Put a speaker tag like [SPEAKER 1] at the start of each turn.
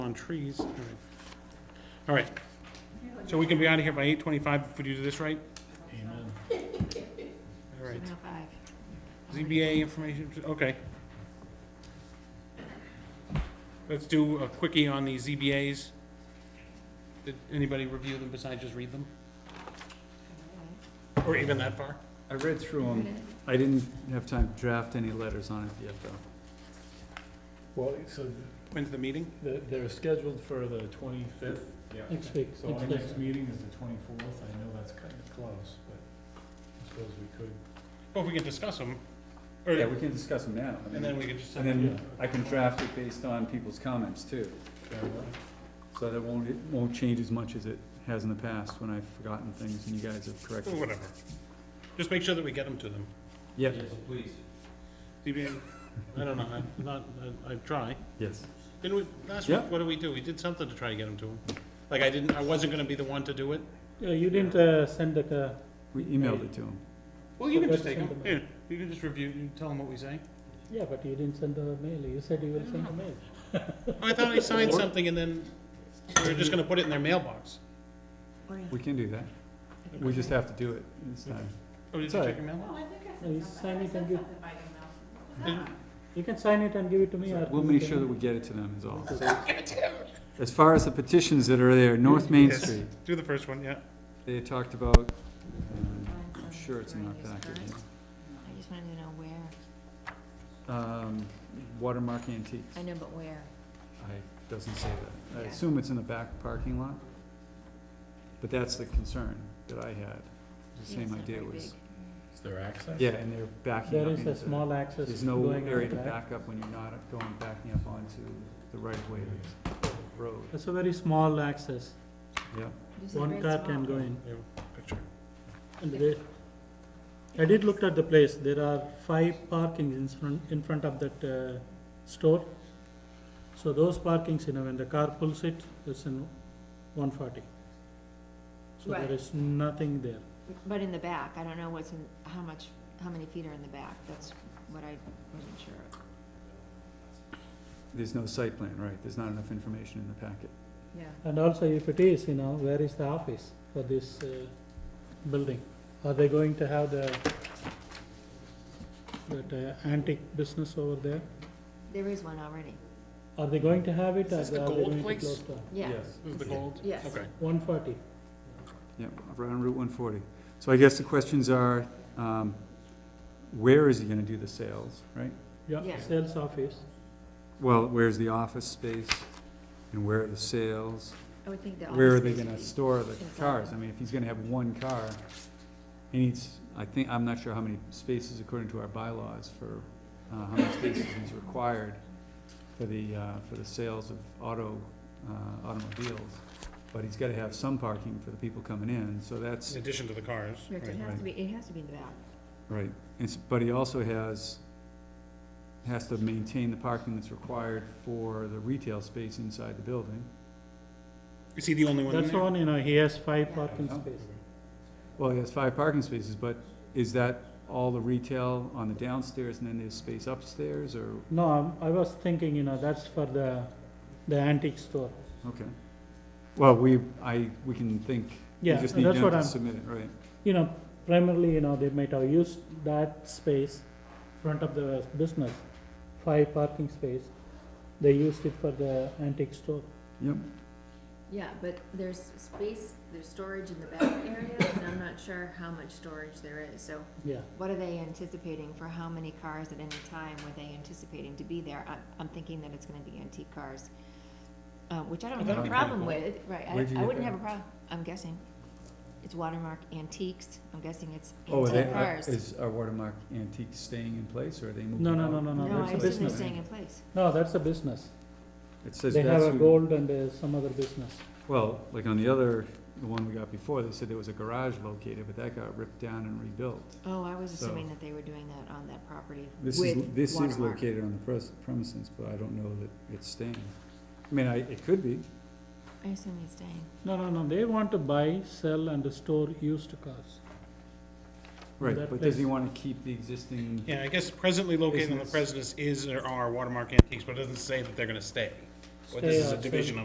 [SPEAKER 1] down trees. All right. All right. So we can be out of here by eight twenty-five if we do this right?
[SPEAKER 2] Amen.
[SPEAKER 1] All right.
[SPEAKER 3] Seven oh five.
[SPEAKER 1] ZBA information, okay. Let's do a quickie on the ZBAs. Did anybody review them besides just read them? Or even that far?
[SPEAKER 2] I read through them. I didn't have time to draft any letters on it yet, though.
[SPEAKER 4] Well, so
[SPEAKER 1] When's the meeting?
[SPEAKER 4] the- they're scheduled for the twenty-fifth.
[SPEAKER 5] Next week,
[SPEAKER 4] So our
[SPEAKER 5] next
[SPEAKER 4] next
[SPEAKER 5] Thursday.
[SPEAKER 4] meeting is the twenty-fourth. I know that's kind of close, but I suppose we could.
[SPEAKER 1] Well, if we can discuss them, or,
[SPEAKER 2] Yeah, we can discuss them now. I
[SPEAKER 1] and then
[SPEAKER 2] mean,
[SPEAKER 1] we can just.
[SPEAKER 2] And then I can draft it based on people's comments too,
[SPEAKER 4] fair enough.
[SPEAKER 2] so that won't, it won't change as much as it has in the past when I've forgotten things and you guys have corrected. it.
[SPEAKER 1] Whatever. Just make sure that we get them to them.
[SPEAKER 2] Yeah,
[SPEAKER 5] please.
[SPEAKER 1] ZBA, I don't know, I'm not, I, I try.
[SPEAKER 2] yes.
[SPEAKER 1] Didn't we, last week,
[SPEAKER 2] Yeah.
[SPEAKER 1] what did we do? We did something to try to get them to them. Like, I didn't, I wasn't gonna be the one to do it.
[SPEAKER 5] Yeah, you didn't uh, send the, uh,
[SPEAKER 2] We emailed it to them.
[SPEAKER 1] Well, you can just
[SPEAKER 5] Okay,
[SPEAKER 1] take them,
[SPEAKER 5] send
[SPEAKER 1] yeah,
[SPEAKER 5] them.
[SPEAKER 1] you can just review, and tell them what we say.
[SPEAKER 5] yeah, but you didn't send the mail, you said you will send the mail.
[SPEAKER 1] I thought I signed something and then we were just gonna put it in their mailbox.
[SPEAKER 2] We can do that. We just have to do it this time.
[SPEAKER 1] Oh, did
[SPEAKER 2] It's
[SPEAKER 1] you
[SPEAKER 2] all
[SPEAKER 1] check your mailbox?
[SPEAKER 6] No, I think I
[SPEAKER 5] No, you
[SPEAKER 6] said something,
[SPEAKER 5] sign
[SPEAKER 6] I
[SPEAKER 5] it
[SPEAKER 6] said
[SPEAKER 5] and give-
[SPEAKER 6] something by email.
[SPEAKER 1] Did-
[SPEAKER 5] You can sign it and give it to me or.
[SPEAKER 2] We'll make sure that we get it to them is all.
[SPEAKER 3] Ah.
[SPEAKER 1] Yes.
[SPEAKER 2] As far as the petitions that are there, North Main Street,
[SPEAKER 1] Do the first one, yeah.
[SPEAKER 2] they talked about, um,
[SPEAKER 3] Find
[SPEAKER 2] I'm
[SPEAKER 3] some
[SPEAKER 2] sure it's in our
[SPEAKER 3] during these
[SPEAKER 2] packet.
[SPEAKER 3] times.
[SPEAKER 2] here.
[SPEAKER 3] I just wanted to know where,
[SPEAKER 2] Um, Watermark Antiques.
[SPEAKER 3] I know, but where.
[SPEAKER 2] I, doesn't say that. I
[SPEAKER 3] Yeah.
[SPEAKER 2] assume it's in the back parking lot. But that's the concern that I had. The
[SPEAKER 3] Yeah,
[SPEAKER 2] same
[SPEAKER 3] it's not
[SPEAKER 2] idea
[SPEAKER 3] very
[SPEAKER 2] was,
[SPEAKER 3] big.
[SPEAKER 4] Is there access?
[SPEAKER 2] yeah, and they're backing up
[SPEAKER 5] There is
[SPEAKER 2] into.
[SPEAKER 5] a small access
[SPEAKER 2] There's no
[SPEAKER 5] going
[SPEAKER 2] area
[SPEAKER 5] out
[SPEAKER 2] to
[SPEAKER 5] back.
[SPEAKER 2] back up when you're not going, backing up onto the right of way of the road.
[SPEAKER 5] It's a very small access,
[SPEAKER 2] Yeah,
[SPEAKER 3] This is
[SPEAKER 5] one
[SPEAKER 3] very
[SPEAKER 5] car
[SPEAKER 3] small.
[SPEAKER 5] can go in.
[SPEAKER 1] Yeah, picture.
[SPEAKER 5] And they, I did look at the place, there are five parkings in front, in front of that uh, store. So those parkings, you know, when the car pulls it, it's in one forty. So
[SPEAKER 3] Right.
[SPEAKER 5] there is nothing there.
[SPEAKER 3] But in the back, I don't know what's in, how much, how many feet are in the back, that's what I wasn't sure of.
[SPEAKER 2] there's no site plan, right, there's not enough information in the packet.
[SPEAKER 3] Yeah,
[SPEAKER 5] And also if it is, you know, where is the office for this uh, building? Are they going to have the, that uh, antique business over there?
[SPEAKER 3] there is one already,
[SPEAKER 5] Are they going to have it
[SPEAKER 1] Is
[SPEAKER 5] or are
[SPEAKER 1] this
[SPEAKER 5] they
[SPEAKER 1] the gold
[SPEAKER 5] going to
[SPEAKER 1] place?
[SPEAKER 5] close down?
[SPEAKER 3] yeah.
[SPEAKER 1] This is the gold?
[SPEAKER 3] Yes.
[SPEAKER 1] Okay.
[SPEAKER 5] One forty.
[SPEAKER 2] Yeah, around Route one forty. So I guess the questions are, um, where is he gonna do the sales, right?
[SPEAKER 5] Yeah,
[SPEAKER 3] Yeah.
[SPEAKER 5] sales office.
[SPEAKER 2] Well, where's the office space, and where are the sales?
[SPEAKER 3] I would think that all
[SPEAKER 2] Where
[SPEAKER 3] the
[SPEAKER 2] are they
[SPEAKER 3] space
[SPEAKER 2] gonna
[SPEAKER 3] would be-
[SPEAKER 2] store the
[SPEAKER 3] inside.
[SPEAKER 2] cars? I mean, if he's gonna have one car, he needs, I think, I'm not sure how many spaces according to our bylaws for, uh, how many spaces is required for the, uh, for the sales of auto, uh, automobiles. But he's gotta have some parking for the people coming in, so that's,
[SPEAKER 1] In addition to the cars.
[SPEAKER 3] Right, It
[SPEAKER 1] right.
[SPEAKER 3] has to be, it has to be in the back.
[SPEAKER 2] right. It's, but he also has, has to maintain the parking that's required for the retail space inside the building.
[SPEAKER 1] Is he the only one in
[SPEAKER 5] That's the
[SPEAKER 1] there?
[SPEAKER 5] one, you know, he has five parking
[SPEAKER 2] Yeah.
[SPEAKER 5] spaces.
[SPEAKER 2] Well, he has five parking spaces, but is that all the retail on the downstairs and then there's space upstairs or,
[SPEAKER 5] No, I'm- I was thinking, you know, that's for the, the antique store.
[SPEAKER 2] okay. Well, we, I, we can think, we
[SPEAKER 5] Yeah,
[SPEAKER 2] just need
[SPEAKER 5] that's
[SPEAKER 2] them
[SPEAKER 5] what
[SPEAKER 2] to
[SPEAKER 5] I'm-
[SPEAKER 2] submit it, right?
[SPEAKER 5] You know, primarily, you know, they might have used that space, front of the business, five parking space. They used it for the antique store.
[SPEAKER 2] Yep,
[SPEAKER 3] Yeah, but there's space, there's storage in the back area, and I'm not sure how much storage there is, so
[SPEAKER 5] Yeah,
[SPEAKER 3] what are they anticipating for how many cars at any time were they anticipating to be there? I'm, I'm thinking that it's gonna be antique cars, uh, which I don't
[SPEAKER 1] Well,
[SPEAKER 3] have
[SPEAKER 1] that'd
[SPEAKER 3] a
[SPEAKER 1] be
[SPEAKER 3] problem
[SPEAKER 1] pretty
[SPEAKER 3] with, right,
[SPEAKER 2] Where'd you
[SPEAKER 3] I, I
[SPEAKER 2] get
[SPEAKER 3] wouldn't
[SPEAKER 2] that?
[SPEAKER 3] have a problem, I'm guessing. It's Watermark Antiques, I'm guessing it's
[SPEAKER 2] Oh, are they,
[SPEAKER 3] antique
[SPEAKER 2] are-
[SPEAKER 3] cars.
[SPEAKER 2] is our watermark antique staying in place or are they moving
[SPEAKER 5] no, no,
[SPEAKER 2] out?
[SPEAKER 5] no, no, no,
[SPEAKER 3] No, I
[SPEAKER 5] that's a
[SPEAKER 3] assume they're
[SPEAKER 5] business.
[SPEAKER 3] staying in place.
[SPEAKER 5] No, that's a business.
[SPEAKER 2] It says
[SPEAKER 5] They have
[SPEAKER 2] that's
[SPEAKER 5] a
[SPEAKER 2] who,
[SPEAKER 5] gold and uh, some other business.
[SPEAKER 2] well, like on the other, the one we got before, they said there was a garage located, but that got ripped down and rebuilt.
[SPEAKER 3] Oh, I was
[SPEAKER 2] So-
[SPEAKER 3] assuming that they were doing that on that property with
[SPEAKER 2] This is,
[SPEAKER 3] Watermark.
[SPEAKER 2] this is located on the pres- premises, but I don't know that it's staying. I mean, I, it could be.
[SPEAKER 3] I assume it's staying.
[SPEAKER 5] No, no, no, they want to buy, sell and store used cars.
[SPEAKER 2] Right,
[SPEAKER 5] that
[SPEAKER 2] but does he
[SPEAKER 5] place.
[SPEAKER 2] wanna keep the existing,
[SPEAKER 1] Yeah, I guess presently located on the
[SPEAKER 2] Business.
[SPEAKER 1] president's is or are Watermark Antiques, but it doesn't say that they're gonna stay. But
[SPEAKER 5] Stay
[SPEAKER 1] this is a
[SPEAKER 5] outside.
[SPEAKER 1] division